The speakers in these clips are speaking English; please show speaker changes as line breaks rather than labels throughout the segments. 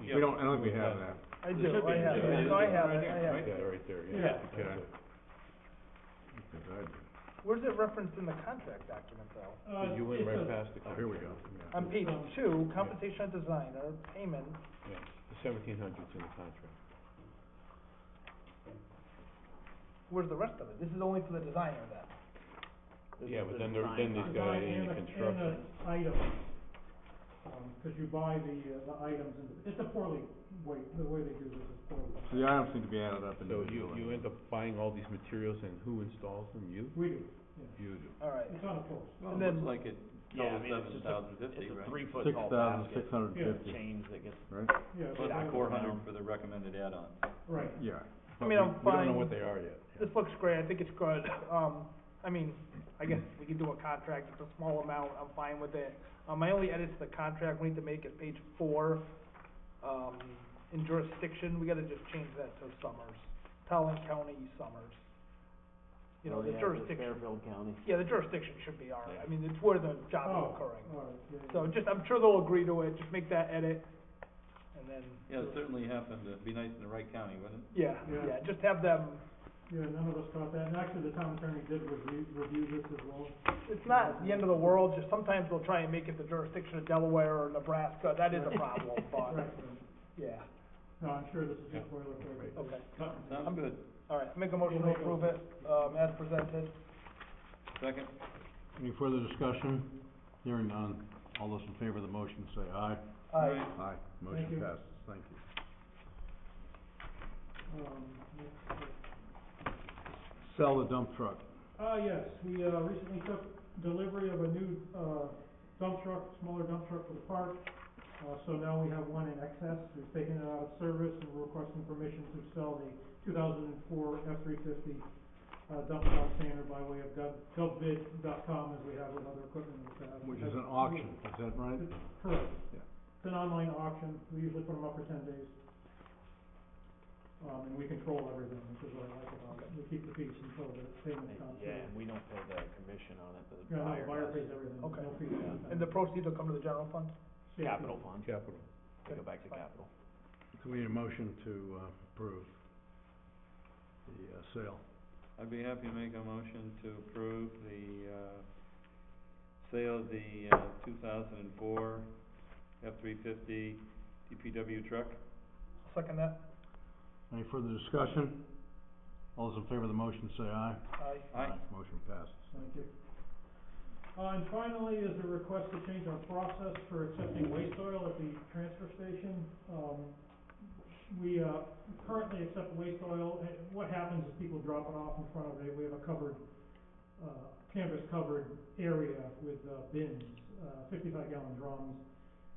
We don't, I don't think we have that.
I do, I have it, I have it, I have it.
Yeah, right there,
Yeah.
yeah.
Okay.
Where's it referenced in the contract document though?
So
Uh,
You went
it's
right
a-
past the.
Oh, here we go. Yeah.
On page two, compensation of designer, payment,
Yeah, the seventeen hundred's in the contract.
where's the rest of it? This is only for the designer then?
Yeah, but then there, then
a
he's got
design
it in
and
the
a-
construction.
And a item, um, cause you buy the, uh, the items, and it's a poorly, way the way they do this is
So the
poorly.
items need to be added up
So you,
individually.
you end up buying all these materials and who installs them? You?
We do,
You do.
Alright,
it's on a post.
Well,
And
it
then-
looks like it
Yeah, I
totals
mean, it's
seven
just a,
thousand fifty,
it's a
right?
three foot
Six
tall
thousand
basket
six hundred
Yeah.
and
of
fifty,
change that gets
right?
Yeah,
put
but-
out
four hundred
now.
for the recommended add-on.
Right,
Yeah.
I mean, I'm
We don't know
fine,
what they are yet.
this looks great, I think it's good, um, I mean, I guess we can do a contract, it's a small amount, I'm fine with it. Um, my only edits to the contract we need to make is page four, um, in jurisdiction, we gotta just change that to Summers, Talon County Summers. You know,
Oh,
the
yeah,
jurisdiction,
Fairfield County.
yeah, the jurisdiction should be our, I
Yeah.
mean, it's where the
oh,
job is
all
occurring.
right, yeah, yeah.
So just, I'm sure they'll agree to it, just make that edit, and then,
Yeah, it certainly happened, it'd be nice in the right county, wouldn't it?
yeah,
Yeah.
yeah, just have them,
Yeah, none of us caught that, and actually, the town attorney did review, review this as well.
it's not the end of the world, just sometimes they'll try and make it the jurisdiction of Delaware or Nebraska, that is a problem, but,
Right,
yeah,
no, I'm sure this is just boilerplate.
okay.
Cut and
Sounds good.
All right, make a motion to approve it, um, as presented.
Second?
Any further discussion? Hearing none. All those in favor of the motion say aye.
Aye.
Aye. Motion
you.
passes. Thank you.
paste. Um, next, uh,
Sell the dump truck.
Uh, yes, we, uh, recently took delivery of a new, uh, dump truck, smaller dump truck for the park. Uh, so now we have one in excess, we've taken it out of service and we're requesting permission to sell the two thousand and four F three fifty, uh, dump truck standard by way of gov, govbid.com as we have with other equipment we have.
Which is an auction, is that right?
Correct.
Yeah.
It's an online auction, we usually put them up for ten days. Um, and we control everything, which is what I like about it, we keep the peace until the payment comes.
Yeah, and we don't pay the commission on it, the
Yeah, no,
buyer
buyer pays
does.
everything, no
Okay. And
fees.
the proceeds will come to the general fund?
Yeah.
Capital fund,
Capital.
they go back to capital.
So we need a motion to uh, approve the uh, sale.
I'd be happy to make a motion to approve the, uh, sale of the, uh, two thousand and four F-350 DPW truck.
Second that,
Any further discussion? All those in favor of the motion say aye.
aye.
Aye.
Motion passes.
Thank you. Uh, and finally is a request to change our process for accepting waste oil at the transfer station. Um, we, uh, currently accept waste oil, and what happens is people drop it off in front of it, we have a covered, uh, canvas covered area with, uh, bins, uh, fifty-five gallon drums.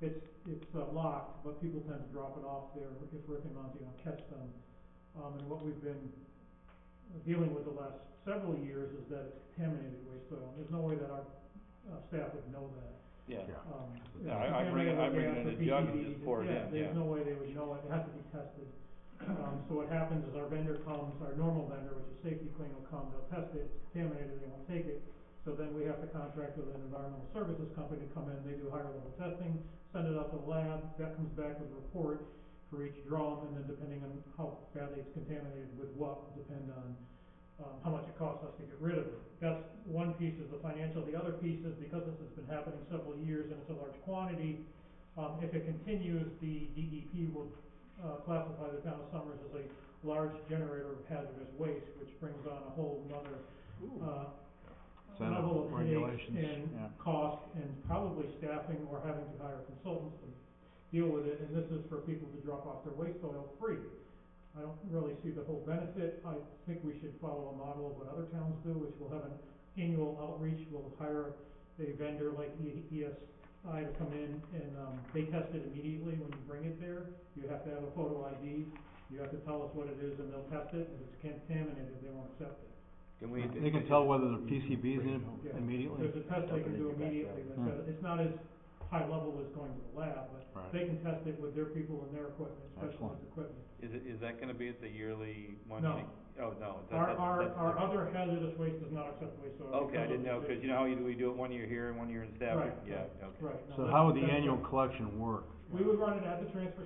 It's, it's, uh, locked, but people tend to drop it off there if Rick and Monty don't catch them. Um, and what we've been dealing with the last several years is that it's contaminated waste oil. There's no way that our uh, staff would know that.
Yeah.
Yeah.
Um,
Yeah, I- I bring it- I bring it in a jug and just pour it in, yeah.
there's no way they would know it, it has to be tested. Um, so what happens is our vendor comes, our normal vendor, which is Safety Clean, will come, they'll test it, it's contaminated, they won't take it. So then we have to contract with an environmental services company to come in, they do higher level testing, send it out to the lab, that comes back with a report for each drum, and then depending on how badly it's contaminated with what, will depend on, um, how much it costs us to get rid of it. That's one piece is the financial, the other piece is because this has been happening several years and it's a large quantity, um, if it continues, the DEP will, uh, classify the town of Summers as a large generator of hazardous waste, which brings on a whole nother, uh,
Set up
level of headaches
regulations,
and
yeah.
cost and probably staffing or having to hire consultants to deal with it, and this is for people to drop off their waste oil free. I don't really see the whole benefit, I think we should follow a model of what other towns do, which will have an annual outreach, we'll hire a vendor like E- ESI to come in and, um, they test it immediately when you bring it there, you have to have a photo ID, you have to tell us what it is and they'll test it, and if it's contaminated, they won't accept it.
Can we?
They can tell whether the PCB's in it
Yeah.
immediately?
There's a test they can do immediately, that's
Hmm.
a- it's not as high level as going to the lab, but
Right.
they can test it with their people and their equipment,
Excellent.
specialized equipment.
Is it, is that gonna be at the yearly one?
No.
meeting? Oh, no. that-
Our,
that-
our,
that's
our
different.
other hazardous waste does not accept waste oil.
Okay, I
because
didn't know,
of the-
cause you know how you do, we do it one year here and one year in Stafford?
Right,
Yeah,
right,
okay.
Right. no,
So
that's-
how would the
that's-
annual collection work?
We would run it at the transfer